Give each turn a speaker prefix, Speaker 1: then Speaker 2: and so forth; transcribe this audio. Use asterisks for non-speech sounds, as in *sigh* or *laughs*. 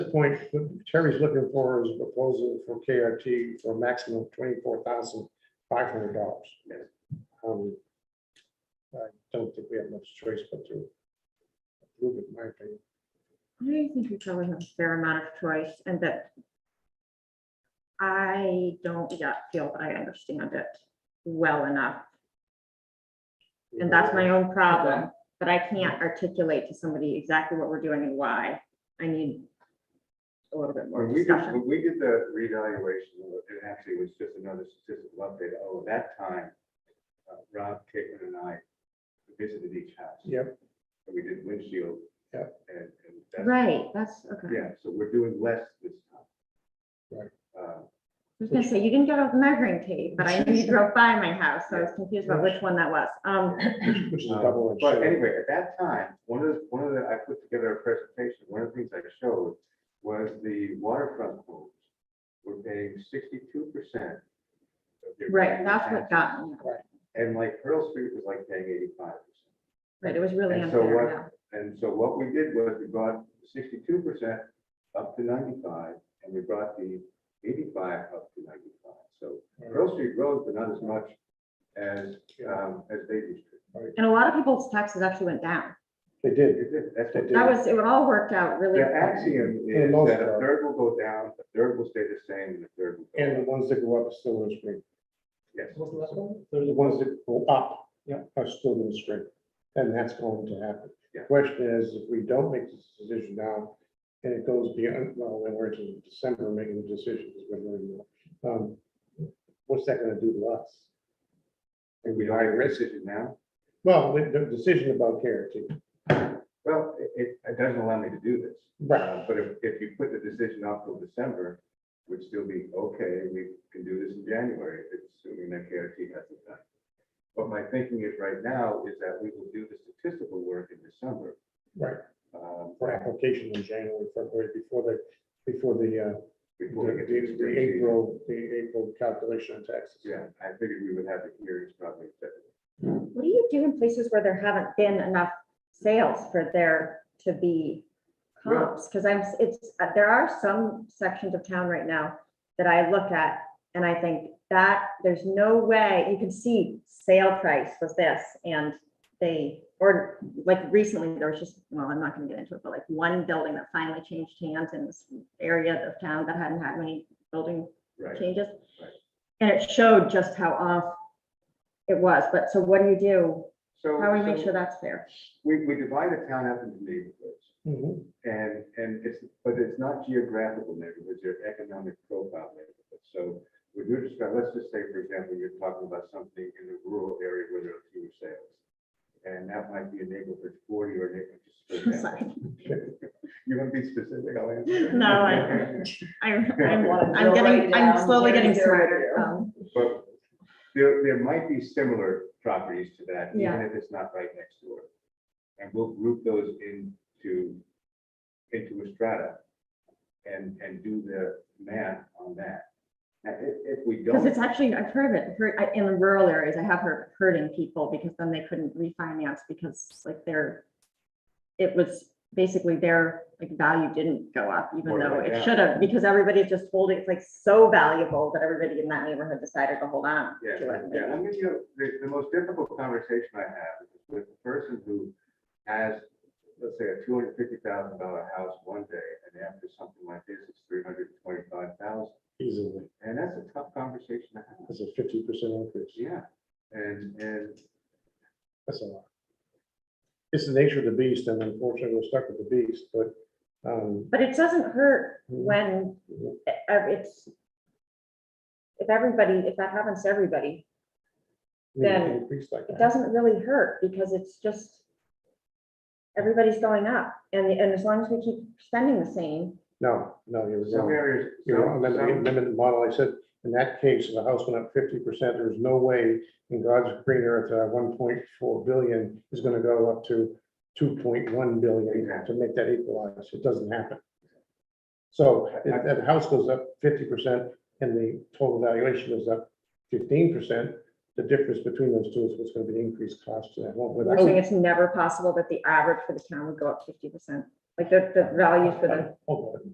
Speaker 1: this point, what Terry's looking for is a proposal for KRT for a maximum of twenty-four thousand five hundred dollars. Um, I don't think we have much choice but to approve it, in my opinion.
Speaker 2: I think we probably have a fair amount of choice and that I don't yet feel that I understand it well enough. And that's my own problem, but I can't articulate to somebody exactly what we're doing and why. I need a little bit more
Speaker 3: When we did,
Speaker 2: discussion.
Speaker 3: when we did the reevaluation, it actually was just another statistical update. Oh, at that time, uh, Rob Caitlin and I visited each house.
Speaker 2: *laughs*
Speaker 1: Yep.
Speaker 3: And we did windshield.
Speaker 1: Yep.
Speaker 3: And, and that's.
Speaker 2: Right, that's, okay. I
Speaker 3: Yeah, so we're doing less this time.
Speaker 1: Right.
Speaker 3: Uh,
Speaker 2: was gonna say, you didn't get a measuring tape, but I knew you drove by my house, so I was confused about which one that was. Um,
Speaker 1: Which is double. edged
Speaker 3: Uh, But
Speaker 1: sword.
Speaker 3: anyway, at that time, one of, the one of the, I put together a presentation, one of the things I showed was the waterfront homes were paying sixty-two percent.
Speaker 2: right, that's what got me.
Speaker 3: And like Pearl Street was like paying eighty-five percent.
Speaker 2: Right, it was really
Speaker 3: And so
Speaker 2: unfair,
Speaker 3: what-
Speaker 2: yeah.
Speaker 3: And so what we did was we brought sixty-two percent up to ninety-five, and we brought the eighty-five up to ninety-five. So Pearl Street rose, but not as much as, um, as Baby Street.
Speaker 2: And a lot of people's taxes actually went down.
Speaker 1: They did.
Speaker 3: It did, That's what
Speaker 1: Yeah.
Speaker 2: That was, it all worked out really.
Speaker 3: The axiom
Speaker 1: the
Speaker 3: is
Speaker 1: most
Speaker 3: that a
Speaker 1: part.
Speaker 3: third will go down, a third will stay the same, and a third will go
Speaker 1: And the
Speaker 3: up.
Speaker 1: ones that go up still in the spring.
Speaker 3: Yes.
Speaker 1: They're the ones that go up, yeah, are still in the spring, and that's going to happen. The
Speaker 3: Yeah.
Speaker 1: Question is, if we don't make this decision now, and it goes beyond, well, then we're into December making the decisions, we're learning more. Um, What's that gonna do to us? And we
Speaker 3: We don't
Speaker 1: high
Speaker 3: have a
Speaker 1: risk,
Speaker 3: decision now.
Speaker 1: well, the, the decision about KRT,
Speaker 3: Well, it- it, it doesn't allow me to do this.
Speaker 1: right,
Speaker 3: Uh, But if, if you put the decision off till December, would still be, okay, we can do this in January, assuming that KRT has it done. But my thinking is right now is that we will do the statistical work in December.
Speaker 1: right,
Speaker 3: um,
Speaker 1: for application in January, February, before the, before the, uh,
Speaker 3: Before we
Speaker 1: the,
Speaker 3: get to
Speaker 1: the-
Speaker 3: spring
Speaker 1: the
Speaker 3: season.
Speaker 1: April, the April calculation of taxes.
Speaker 3: Yeah, I figured we would have the hearings probably. in February.
Speaker 2: What do you do in places where there haven't been enough sales for there to be
Speaker 3: Well-
Speaker 2: comps? Because I'm, it's, uh, there are some sections of town right now that I look at and I think that there's no way, you can see sale price was this and they, or like recently, there was just, well, I'm not gonna get into it, but like one building that finally changed hands in this area of town that hadn't had many building
Speaker 3: Right.
Speaker 2: changes.
Speaker 3: Right.
Speaker 2: And it showed just how off it was, but so what do you do?
Speaker 3: So.
Speaker 2: How do we make
Speaker 3: so
Speaker 2: sure that's fair?
Speaker 3: We, we divide the town up into neighborhoods.
Speaker 1: Mhm.
Speaker 3: And, and it's, but it's not geographical neighborhoods, they're economic profile neighborhoods. So when you're describing, let's just say, for example, you're talking about something in a rural area where there are fewer sales. And that might be a neighborhood forty or a neighborhood.
Speaker 2: *laughs*
Speaker 3: just for example.
Speaker 2: Sorry.
Speaker 3: *laughs* You want to be specific, I'll answer.
Speaker 2: No,
Speaker 3: *laughs*
Speaker 2: I-
Speaker 4: *laughs*
Speaker 2: I'm, I'm,
Speaker 3: Wanna
Speaker 2: I'm
Speaker 4: drill
Speaker 2: getting,
Speaker 4: right
Speaker 2: I'm
Speaker 4: down
Speaker 2: slowly
Speaker 4: where
Speaker 2: getting
Speaker 4: they're
Speaker 2: smarter.
Speaker 4: at.
Speaker 2: um,
Speaker 3: But there, there might be similar properties to that, even
Speaker 2: Yeah.
Speaker 3: if it's not right next door. And we'll group those into, into a strata and, and do the math on that. Now, if, if we
Speaker 2: Because
Speaker 3: don't,
Speaker 2: it's actually, I've heard of it, heard, I- in rural areas, I have heard of hurting people because then they couldn't refinance because like their, it was basically their, like, value didn't go up, even
Speaker 3: Or
Speaker 2: though
Speaker 3: went
Speaker 2: it
Speaker 3: down.
Speaker 2: should have, because everybody's just holding, it's like so valuable that everybody in that neighborhood decided to hold on
Speaker 3: yeah,
Speaker 2: to it.
Speaker 3: yeah, I mean, you know, the, the most difficult conversation I have is with the person who has, let's say, a two hundred fifty thousand dollar house one day, and after something like this, it's three hundred twenty-five thousand.
Speaker 1: Easily,
Speaker 3: And that's a tough conversation to have.
Speaker 1: that's a fifty percent increase.
Speaker 3: Yeah, and, and,
Speaker 1: That's a lot. It's the nature of the beast, and unfortunately, we're stuck with the beast, but, um,
Speaker 2: But it doesn't hurt when e- ev- it's, if everybody, if that happens to everybody,
Speaker 1: we can
Speaker 2: Then
Speaker 1: increase like
Speaker 2: it
Speaker 1: that.
Speaker 2: doesn't really hurt because it's just, everybody's going up. And, and as long as we keep spending the same,
Speaker 1: No, no, you're
Speaker 3: some
Speaker 1: wrong.
Speaker 3: areas,
Speaker 1: You're wrong.
Speaker 3: some,
Speaker 1: Remember the
Speaker 3: some,
Speaker 1: amendment model, I said, in that case, if the house went up fifty percent, there's no way in God's green earth, uh, one point four billion is gonna go up to two point one billion to
Speaker 3: Exactly.
Speaker 1: make that equalize. It doesn't happen. So if that house goes up fifty percent and the total valuation goes up fifteen percent, the difference between those two is what's gonna be the increased cost to that home
Speaker 2: we're saying
Speaker 1: without.
Speaker 2: it's never possible that the average for the town would go up fifty percent. Like the, the values for the
Speaker 1: Oh,